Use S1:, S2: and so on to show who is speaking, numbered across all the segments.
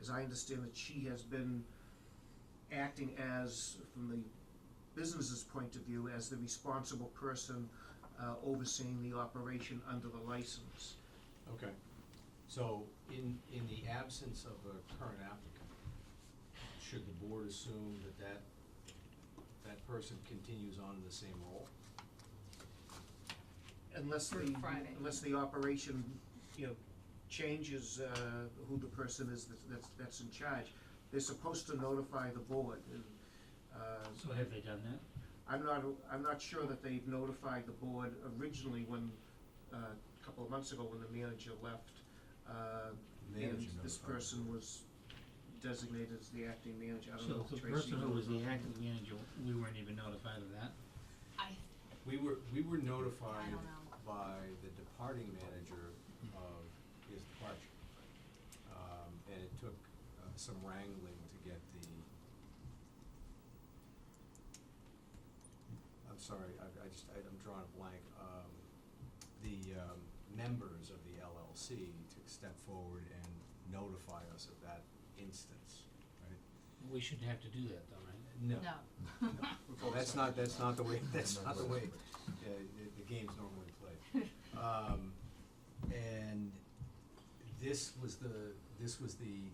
S1: as I understand it, she has been acting as, from the business's point of view, as the responsible person uh, overseeing the operation under the license.
S2: Okay, so in, in the absence of a current applicant, should the board assume that that, that person continues on in the same role?
S1: Unless
S3: For
S1: the,
S3: Friday.
S1: unless the operation, you know, changes uh, who the person is that's- that's, that's in charge. They're supposed to notify the board. and, uh,
S4: So have they done that?
S1: I'm not, I'm not sure that they've notified the board originally when, uh, a couple of months ago when the manager left. uh, And
S2: Manager
S1: this
S2: notified.
S1: person was designated as the acting manager, I don't know
S4: So
S1: if
S4: the
S1: Tracy.
S4: person who was the acting manager, we weren't even notified of that?
S3: I,
S2: We were, we were notified
S3: I don't know.
S2: by the departing manager of his departure. Um, and it took uh, some wrangling to get the, I'm sorry, I, I just, I- I'm drawing a blank, um, the, um, members of the LLC to step forward and notify us of that instance, right?
S4: We shouldn't have to do that though, right?
S3: no.
S2: well, that's not, that's not the way, that's not the way, uh, the, the game's normally played. Um, and this was the, this was the,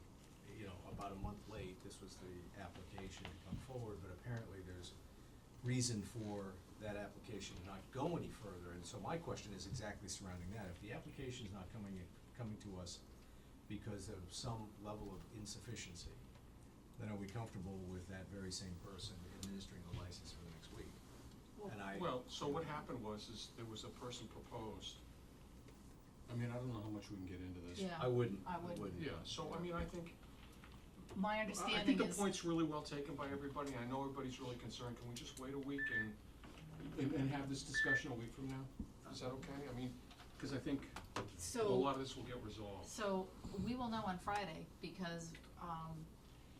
S2: you know, about a month late, this was the application to come forward, but apparently there's reason for that application to not go any further, and so my question is exactly surrounding that. If the application's not coming, in- coming to us because of some level of insufficiency, then are we comfortable with that very same person administering the license for the next week? And I-
S5: Well, so what happened was, is there was a person proposed. I mean, I don't know how much we can get into this.
S3: Yeah.
S2: I wouldn't, I
S3: I wouldn't.
S2: wouldn't.
S5: Yeah, so I mean, I think,
S3: My
S5: I- I
S3: understanding
S5: think the
S3: is,
S5: point's really well taken by everybody, I know everybody's really concerned, can we just wait a week and, and, and have this discussion a week from now? Is that okay? I mean, cause I think a
S3: so,
S5: lot of this will get resolved.
S3: so we will know on Friday because, um,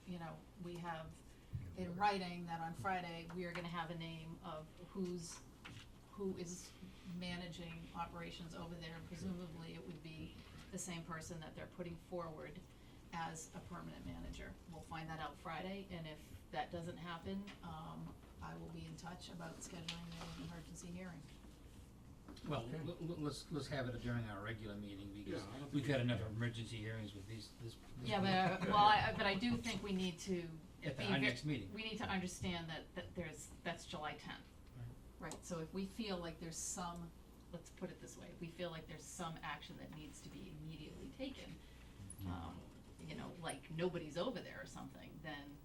S3: you know, we have in writing that on Friday, we are gonna have a name of who's, who is managing operations over there. and Presumably it would be the same person that they're putting forward as a permanent manager. We'll find that out Friday and if that doesn't happen, um, I will be in touch about scheduling an emergency hearing.
S4: Well, l- l- let's, let's have it during our regular meeting because
S5: Yeah, I don't think
S4: we've
S5: we-
S4: had enough emergency hearings with these, this. this
S3: Yeah, but,
S4: group.
S3: uh, well, I, but I do think we need to
S4: At the,
S3: be
S4: our
S3: ve-
S4: next meeting.
S3: we need to understand that, that there's, that's July tenth. Right, so if we feel like there's some, let's put it this way, if we feel like there's some action that needs to be immediately taken, um, you know, like nobody's over there or something, then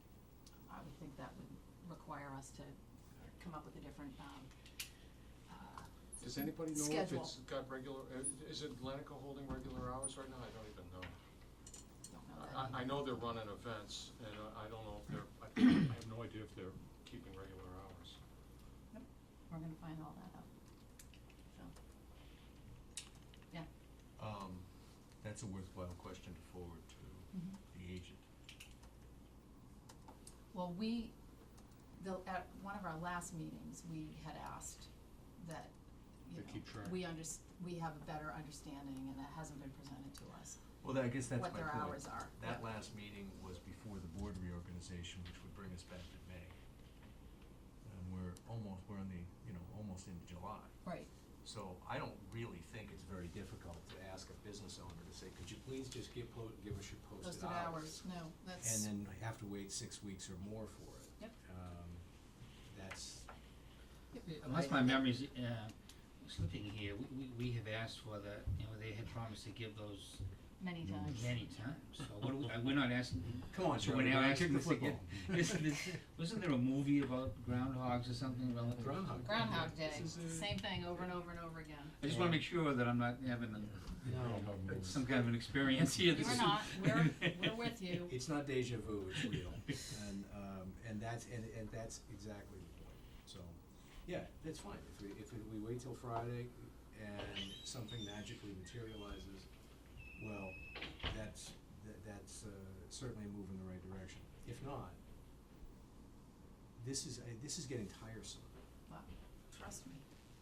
S3: I would think that would require us to come up with a different, um, uh,
S5: Does anybody know if
S3: Schedule.
S5: it's got regular, uh, is Atlantica holding regular hours right now? I don't even know.
S3: don't know that.
S5: I, I know they're running events, and uh, I- I don't know if they're, I I have no idea if they're keeping regular hours.
S3: We're gonna find all that out, so.
S2: Um, that's a worthwhile question to forward to
S5: Mm-hmm.
S3: mhm.
S2: the agent.
S3: Well, we, the, at one of our last meetings, we had asked that, you
S5: They
S3: know,
S5: keep track.
S3: we unders- we have a better understanding and that hasn't been presented to us,
S2: Well, that- I guess that's my
S3: what
S2: point.
S3: their hours are.
S2: That last meeting was before the board reorganization, which would bring us back to May. And we're almost, we're in the, you know, almost into July.
S3: Right,
S2: So I don't really think it's very difficult to ask a business owner to say, could you please just give, po- give us your
S3: posted
S2: posted
S3: hours, no, that's,
S2: And then have to wait six weeks or more for it.
S3: Yep.
S2: Um, that's,
S4: Uh, Unless my memory's, uh, slipping here, we, we, we have asked for the, you know, they had promised to give those
S3: many times.
S4: many times, so what, do we- uh, we're not asking,
S2: come on,
S4: so
S2: Charlie,
S4: we're now
S2: kick
S4: asking
S2: the
S4: this again.
S2: football.
S4: Isn't this, wasn't there a movie about groundhogs or something relative?
S2: Groundhog.
S3: Groundhog Day,
S2: This is a-
S3: same thing over and over and over again.
S4: I just wanna make sure that I'm not having a
S2: No,
S4: some kind of an experience here.
S3: You're not, we're, we're with you,
S2: it's not deja vu, it's real. And, um, and that's, and, and that's exactly the point. So, yeah, that's fine. If we, if we wait till Friday and something magically materializes, well, that's, that- that's uh, certainly a move in the right direction. If not, this is, uh, this is getting tiresome.
S3: Well, trust me,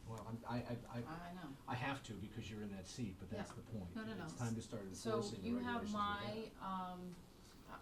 S2: Well, I'm, I, I, I,
S3: I know.
S2: I have to because you're in that seat, but that's
S3: Yeah.
S2: the point.
S3: No, no, no.
S2: It's time to start
S3: So
S2: enforcing the
S3: you
S2: regulations we
S3: have my, um,